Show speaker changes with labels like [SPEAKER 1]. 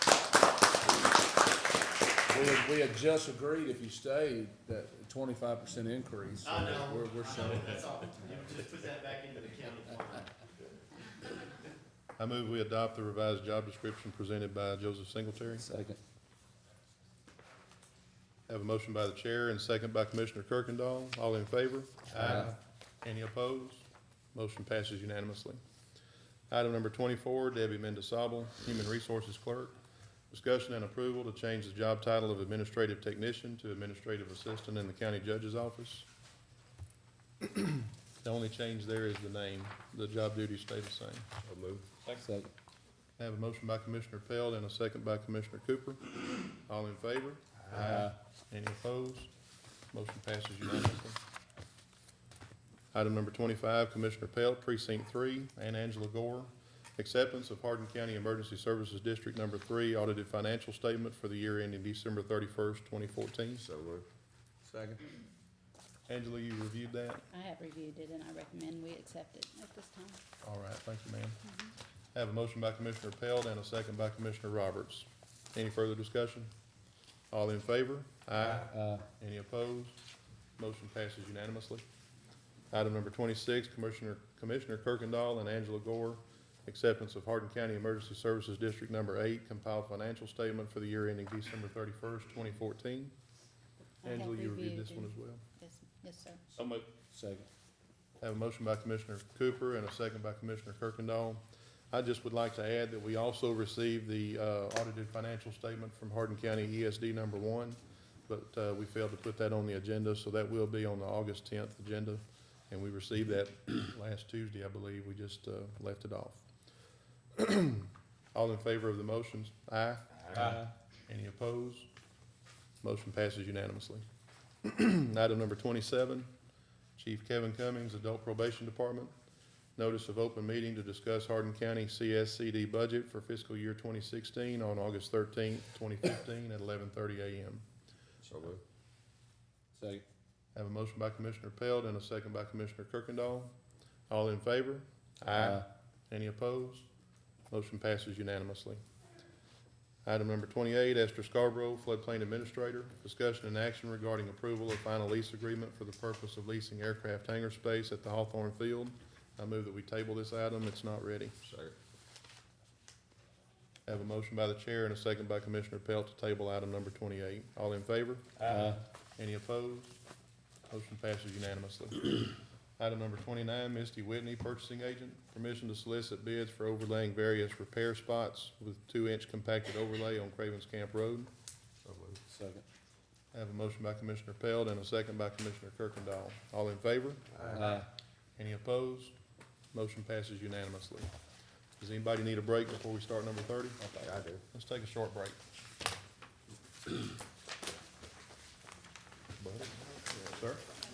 [SPEAKER 1] We had, we had just agreed if you stayed, that twenty-five percent increase. so
[SPEAKER 2] I know,
[SPEAKER 1] We're,
[SPEAKER 2] I
[SPEAKER 1] we're
[SPEAKER 2] know,
[SPEAKER 1] showing.
[SPEAKER 2] that's all, you just put that back into the county line.
[SPEAKER 3] I move we adopt the revised job description presented by Joseph Singletary.
[SPEAKER 1] Second.
[SPEAKER 3] Have a motion by the chair and second by Commissioner Kirkendall. All in favor?
[SPEAKER 1] Aye.
[SPEAKER 3] Any opposed? Motion passes unanimously. Item number twenty-four, Debbie Mendesabel, Human Resources Clerk. Discussion and approval to change the job title of Administrative Technician to Administrative Assistant in the County Judge's Office. The only change there is the name. The job duties stay the same.
[SPEAKER 1] Second.
[SPEAKER 3] I Have a motion by Commissioner Pelt and a second by Commissioner Cooper. All in favor? Aye. Any opposed? Motion passes unanimously. Item number twenty-five, Commissioner Pelt, Precinct Three, and Angela Gore. Acceptance of Hardin County Emergency Services District Number Three Audited Financial Statement for the year ending December thirty-first, twenty fourteen.
[SPEAKER 4] So moved.
[SPEAKER 1] Second.
[SPEAKER 3] Angela, you reviewed that?
[SPEAKER 5] I have reviewed it and I recommend we accept it at this time.
[SPEAKER 3] All right, thank you, ma'am. I Have a motion by Commissioner Pelt and a second by Commissioner Roberts. Any further discussion? All in favor? Aye.
[SPEAKER 1] Uh,
[SPEAKER 3] Any opposed? Motion passes unanimously. Item number twenty-six, Commissioner, Commissioner Kirkendall and Angela Gore, acceptance of Hardin County Emergency Services District Number Eight, compiled financial statement for the year ending December thirty-first, twenty fourteen.
[SPEAKER 5] I have
[SPEAKER 3] Angela, you reviewed this one
[SPEAKER 5] and-
[SPEAKER 3] as well?
[SPEAKER 5] Yes, yes, sir.
[SPEAKER 3] So moved.
[SPEAKER 1] second.
[SPEAKER 3] Have a motion by Commissioner Cooper and a second by Commissioner Kirkendall. I just would like to add that we also received the uh, audited financial statement from Hardin County ESD number one, but uh, we failed to put that on the agenda, so that will be on the August tenth agenda. And we received that last Tuesday, I believe. We just uh, left it off. All in favor of the motions? Aye. Aye. Any opposed? Motion passes unanimously. Item number twenty-seven, Chief Kevin Cummings, Adult Probation Department. Notice of open meeting to discuss Hardin County CSCD budget for fiscal year twenty sixteen on August thirteenth, twenty fifteen at eleven thirty AM.
[SPEAKER 4] So moved.
[SPEAKER 1] Second.
[SPEAKER 3] Have a motion by Commissioner Pelt and a second by Commissioner Kirkendall. All in favor?
[SPEAKER 1] Aye.
[SPEAKER 3] Any opposed? Motion passes unanimously. Item number twenty-eight, Esther Scarborough, Floodplain Administrator. Discussion and action regarding approval of final lease agreement for the purpose of leasing aircraft hangar space at the Hawthorne Field. I move that we table this item. It's not ready.
[SPEAKER 4] Second.
[SPEAKER 3] Have a motion by the chair and a second by Commissioner Pelt to table item number twenty-eight. All in favor?
[SPEAKER 1] Aye.
[SPEAKER 3] Any opposed? Motion passes unanimously. Item number twenty-nine, Misty Whitney, purchasing agent, permission to solicit bids for overlaying various repair spots with two-inch compacted overlay on Cravens Camp Road.
[SPEAKER 4] So moved.
[SPEAKER 1] Second.
[SPEAKER 3] I have a motion by Commissioner Peld and a second by Commissioner Kirkendall. All in favor?
[SPEAKER 1] Aye.
[SPEAKER 3] Any opposed? Motion passes unanimously. Does anybody need a break before we start number thirty?
[SPEAKER 4] I do.
[SPEAKER 3] Let's take a short break. Buddy? Sir?